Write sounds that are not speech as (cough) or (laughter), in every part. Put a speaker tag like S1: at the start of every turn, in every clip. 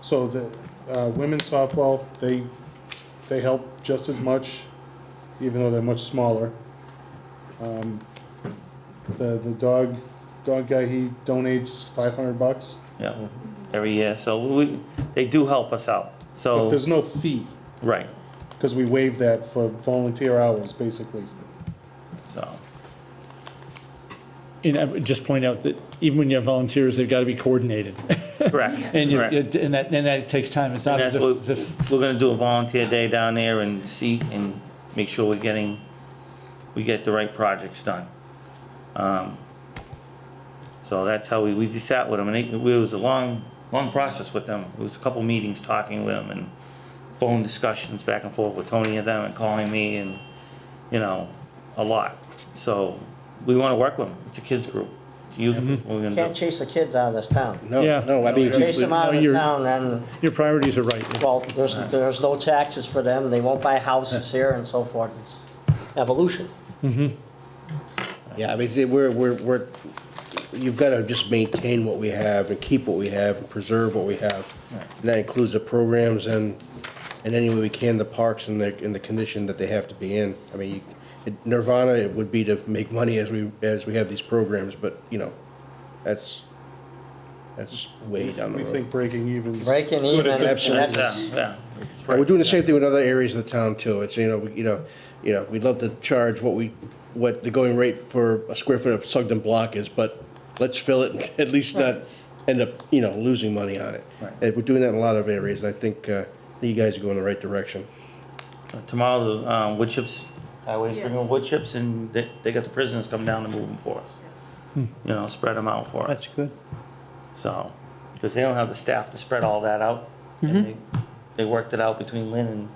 S1: So the uh, women's softball, they, they help just as much, even though they're much smaller. Um, The, the dog, dog guy, he donates five hundred bucks,
S2: yeah, every year, so we, they do help us out,
S1: but
S3: Oh.
S2: so,
S1: there's no fee,
S2: right,
S1: because we waive that for volunteer hours, basically.
S4: (laughs)
S2: so,
S4: And I would uh, just point out that even when you have volunteers, they've got to be coordinated. (laughs)
S2: correct.
S4: And you,
S2: correct.
S4: you- and that, and that takes time. It's not
S2: And
S4: as
S2: that's
S4: if,
S2: what,
S4: as if-
S2: we're gonna do a volunteer day down there and see, and make sure we're getting, we get the right projects done. Um, So that's how we, we just sat with them, and it, it was a long, long process with them. It was a couple meetings talking with them, and phone discussions back and forth with Tony and them, and calling me, and, you know, a lot. So, we wanna work with them, it's a kids group, it's youth, we're gonna do.
S5: Can't chase the kids out of this town.
S1: No,
S4: Yeah.
S1: no, I mean,
S5: Chase them out
S4: No,
S5: of the
S4: you're-
S5: town, then,
S4: your priorities are right.
S5: well, there's, there's no taxes for them, they won't buy houses here and so forth. It's evolution.
S3: Yeah, I mean, we're, we're, we're, you've got to just maintain what we have and keep what we have and preserve what we have. And that includes the programs and, and any way we can, the parks and the, and the condition that they have to be in. I mean, you- nirvana it would be to make money as we, as we have these programs, but, you know, that's, that's way down the
S1: we
S3: road.
S1: think breaking even's.
S5: Breaking
S1: good
S5: even,
S1: at this
S5: that's-
S1: point.
S2: Yeah, yeah.
S3: And We're doing the same thing with other areas of the town too. It's, you know, we- you know, you know, we'd love to charge what we, what the going rate for a square foot of Sugden block is, but let's fill it, and (laughs) at least not end up, you know, losing money on it.
S2: Right.
S3: And we're doing that in a lot of areas, and I think, uh, I think you guys are going the right direction.
S2: Tomorrow, the, um, wood chips, highway's bringing
S6: Yes.
S2: wood chips and they, they got the prisoners come down and move them for us. You know, spread them out for us,
S4: That's good.
S2: so, because they don't have the staff to spread all that out. And they, they worked it out between Lynn and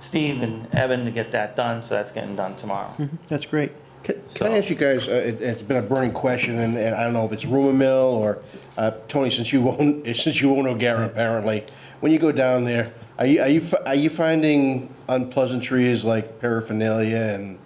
S2: Steve and Evan to get that done, so that's getting done tomorrow.
S4: That's great.
S3: Can can I ask you guys, uh, it- it's been a burning question, and and I don't know if it's rumor mill or, uh, Tony, since you (laughs) own, since you own O'Gara apparently, when you go down there, are you, are you, fi- are you finding unpleasantries like paraphernalia and,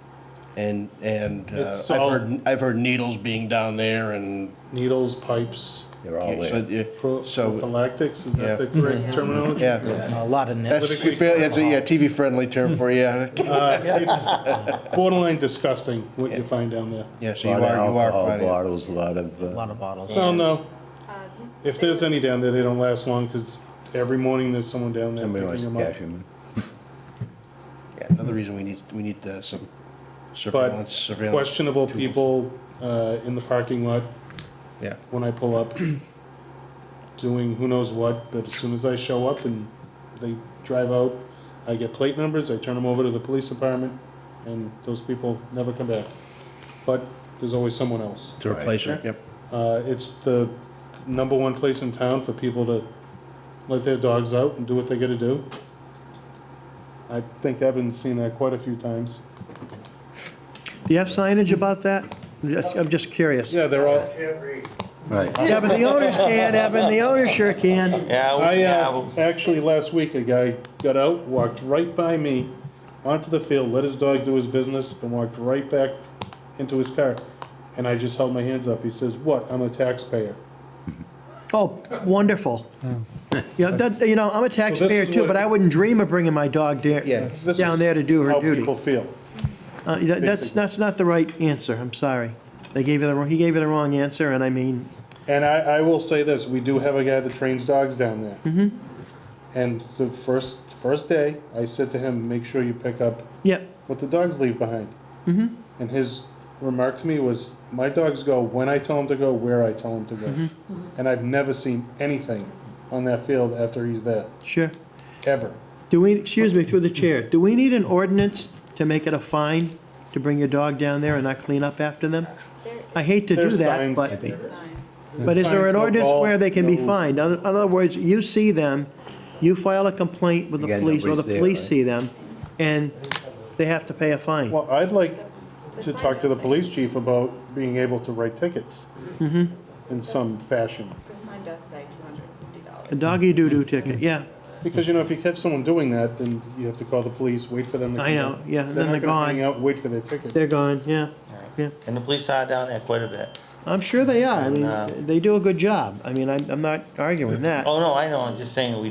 S3: and, and uh,
S1: It's all-
S3: I've heard, I've heard needles being down there and.
S1: Needles, pipes,
S3: They're all there.
S1: pro-
S3: So,
S1: prophylactics, is that the
S3: Yeah.
S1: correct terminology?
S3: (laughs) yeah,
S5: A lot of
S3: that's, that's a TV-friendly term
S1: (laughs)
S3: for you.
S1: Uh, It's borderline disgusting what you find down there.
S3: Yeah, so
S7: A
S3: you
S7: lot of
S3: are, you are
S7: alcohol
S3: finding. it.
S7: bottles, a lot of, uh,
S5: of bottles.
S1: Well, no, if there's any down there, they don't last long, because every morning there's someone down there
S7: somebody
S1: picking
S7: wants to
S1: them up.
S7: cash them.
S3: Yeah, Another reason we need, we need uh, some
S1: But
S3: surveillance, surveillance.
S1: questionable
S3: tools.
S1: people uh, in the parking lot
S3: Yeah.
S1: when I pull up, doing who knows what, but as soon as I show up and they drive out, I get plate numbers, I turn them over to the police department, and those people never come back. But there's always someone else.
S3: To replace her, yep.
S1: Uh, it's the number one place in town for people to let their dogs out and do what they gotta do. I think I've been seeing that quite a few times.
S8: Do you have signage about that? I'm just- I'm just curious.
S1: Yeah, they're all,
S7: Right.
S8: Yeah, but the owners can, Evan, the owners sure can.
S2: Yeah, we-
S1: I,
S2: yeah,
S1: uh,
S2: we-
S1: actually, last week, a guy got out, walked right by me onto the field, let his dog do his business, and walked right back into his car. And I just held my hands up. He says, what? I'm a taxpayer.
S8: Oh, wonderful. You know, that, you know, I'm a taxpayer too, but I wouldn't dream of bringing my dog
S3: Yeah.
S8: there,
S1: This is
S8: down there to do her
S1: How
S8: duty.
S1: people feel.
S8: Uh, that- That's, that's not the right answer, I'm sorry. They gave you the, wrong- he gave you the wrong answer, and I mean,
S1: And I, I will say this, we do have a guy that trains dogs down there. Mm-hmm. And the first, first day, I said to him, make sure you pick up
S8: yeah,
S1: what the dogs leave behind. Mm-hmm. And his remark to me was, my dogs go when I tell them to go, where I tell them to go. And I've never seen anything on that field after he's there,
S8: sure.
S1: ever.
S8: Do we, excuse me, through the chair, do we need an ordinance to make it a fine to bring your dog down there and not clean up after them? I hate to do
S1: There's
S8: that,
S1: signs.
S8: but.
S6: Sign.
S8: But is there
S1: Signs,
S8: an
S1: no
S8: ordinance
S1: ball,
S8: where they can be
S1: no-
S8: fined? In other words, you see them, you file a complaint with the
S7: Again,
S8: police, or the
S7: nobody's there,
S8: police
S7: right?
S8: see them, and they have to pay a fine.
S1: Well, I'd like
S6: The
S1: to
S6: sign
S1: talk to the
S6: does say-
S1: police chief about being able to write tickets Mm-hmm. in some fashion.
S6: The sign does say two hundred and fifty dollars.
S8: A doggy doo-doo ticket, yeah,
S1: Because, you know, if you catch someone doing that, then you have to call the police, wait for them to come.
S8: I know,
S1: out.
S8: yeah, then
S1: not
S8: they're
S1: gonna
S8: gone.
S1: Hang out, and wait for their ticket.
S8: They're gone, yeah, yeah.
S2: and the police are down there quite a bit.
S8: I'm sure they are, I
S2: No.
S8: mean, they do a good job. I mean, I'm, I'm not arguing that.
S2: Oh, no, I know, I'm just saying, we